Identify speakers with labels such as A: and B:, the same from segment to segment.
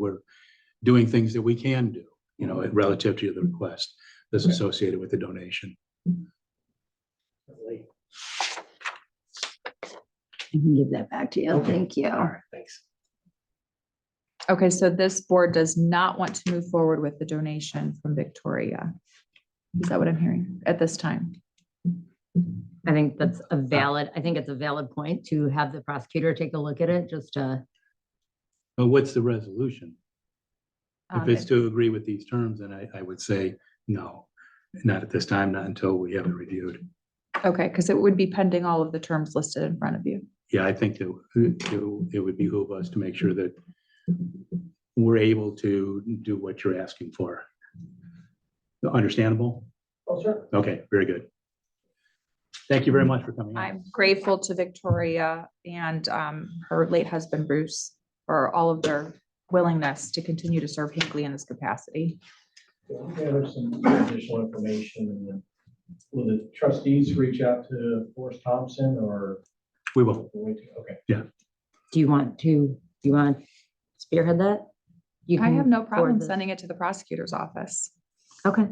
A: we're doing things that we can do, you know,
B: Mm-hmm.
A: relative to the request that's associated with the donation.
B: Definitely.
C: I can give that back to you.
B: Okay.
C: Thank you.
B: All right, thanks.
D: Okay, so this board does not want to move forward with the donation from Victoria. Is that what I'm hearing at this time?
E: I think that's a valid, I think it's a valid point to have the prosecutor take a look at it, just uh, to,
A: But what's the resolution? If
D: Um,
A: it's to agree with these terms, then I, I would say no, not at this time, not until we have it reviewed.
D: Okay, because it would be pending all of the terms listed in front of you.
A: Yeah, I think that uh, it- it would behoove us to make sure that we're able to do what you're asking for. Understandable?
B: Oh, sure.
A: Okay, very good. Thank you very much for coming. in.
D: I'm grateful to Victoria and um, her late husband Bruce for all of their willingness to continue to serve Hinckley in this capacity.
B: We'll Gather some additional information and then will the trustees reach out to Forrest Thompson or?
A: We will.
B: wait, Okay.
E: do you want to, do you want to spearhead that? You
D: I
E: can
D: have no problem
E: forward this.
D: sending it to the prosecutor's office.
E: Okay,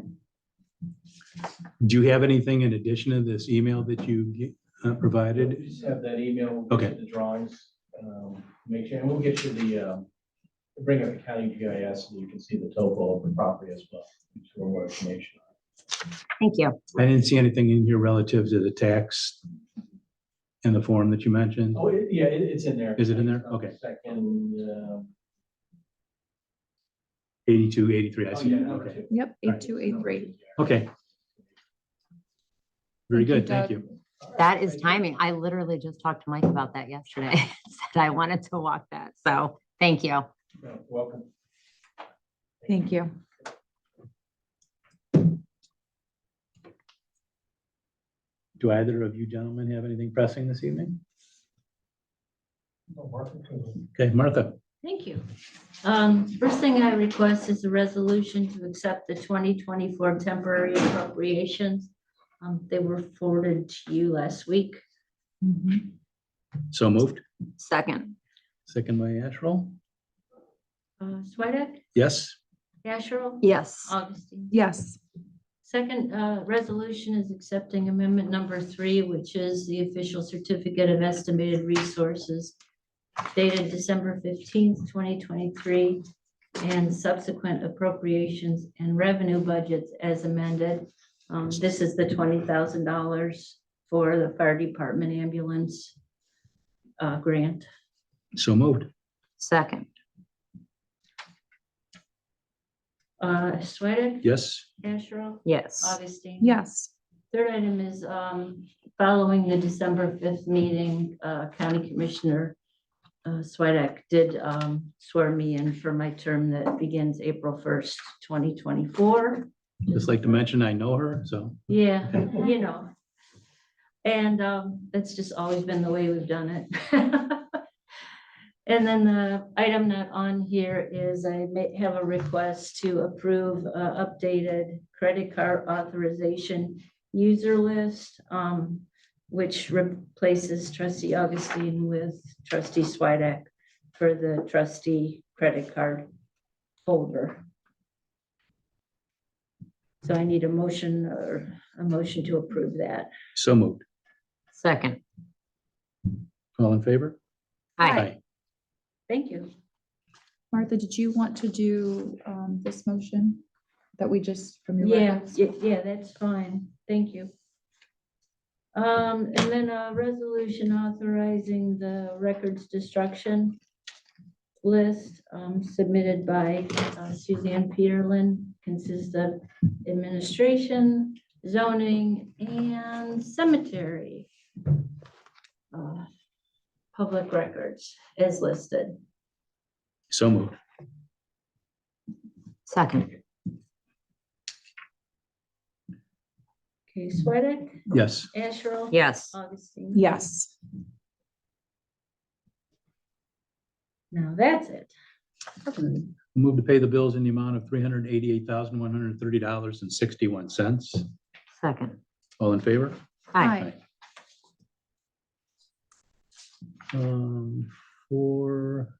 A: Do you have anything in addition to this email that you uh, provided?
B: Just have that email. we'll get
A: Okay.
B: The drawings, um, make sure, and we'll get you the, um, we'll bring up the county GIS so you can see the topo of the property as well. for more information.
E: thank you.
A: I didn't see anything in here relative to the tax in the form that you mentioned.
B: Oh, it- yeah, it, it's in there.
A: Is it in there? Okay.
B: Second, um.
A: Eighty-two, eighty-three, I
B: oh,
A: see.
B: yeah,
A: that.
B: number
A: Okay.
B: two.
D: Yep,
A: Right.
D: eight two eight three.
A: Okay. Very
D: Thank you,
A: good. Thank
D: Doug.
A: you.
B: All right,
E: That is
B: thank you.
E: timing. I literally just talked to Mike about that yesterday. Said I wanted to walk that, so thank you.
B: Yeah, Welcome.
D: Thank you.
A: Do either of you gentlemen have anything pressing this evening?
B: Oh, Mark, okay.
A: Okay, Martha,
F: Thank you. Um, First thing I request is a resolution to accept the 2024 temporary appropriations. Um, They were forwarded to you last week.
A: so moved.
E: Second.
A: Second by Asherle.
F: Uh, Swedek,
A: Yes?
F: Asherle,
E: Yes.
F: Augustine.
D: Yes,
F: Second uh, resolution is accepting amendment number three, which is the official certificate of estimated resources dated December 15th, 2023, and subsequent appropriations and revenue budgets as amended. Um, This is the $20,000 for the fire department ambulance uh, grant.
A: So moved.
E: Second.
F: Uh, Swedek,
A: Yes?
F: Asherle,
E: Yes.
F: Augustine?
D: Uh, yes.
F: Third item is um, following the December 5th meeting, uh, County Commissioner uh, Swedek did um, swear me in for my term that begins April 1st, 2024.
A: Just like to mention, I know her, so
F: Yeah,
A: Okay.
F: you know. And um, that's just always been the way we've done it. And then the item not on here is I may have a request to approve uh, updated credit card authorization user list, um, which replaces trustee Augustine with trustee Swidek for the trustee credit card holder. So I need a motion or a motion to approve that.
A: so moved.
E: Second.
A: All in favor?
E: Hi.
F: Thank you.
D: Martha, did you want to do um, this motion that we just from your?
F: Yeah,
D: records?
F: ye- yeah, that's fine. Thank you. Um, and then a resolution authorizing the records destruction list um, submitted by uh, Suzanne Peterlin consists of administration, zoning, and cemetery uh, public records as listed.
A: So moved.
E: Second.
F: Okay, Sweattick,
A: Yes.
F: Asherle?
E: Yes.
F: Augustine?
D: Yes,
F: Now that's it.
A: Move to pay the bills in the amount of three hundred eighty-eight thousand, one hundred thirty dollars and sixty-one cents.
E: Second.
A: All in favor?
E: Hi.
D: Aye.
A: Um, for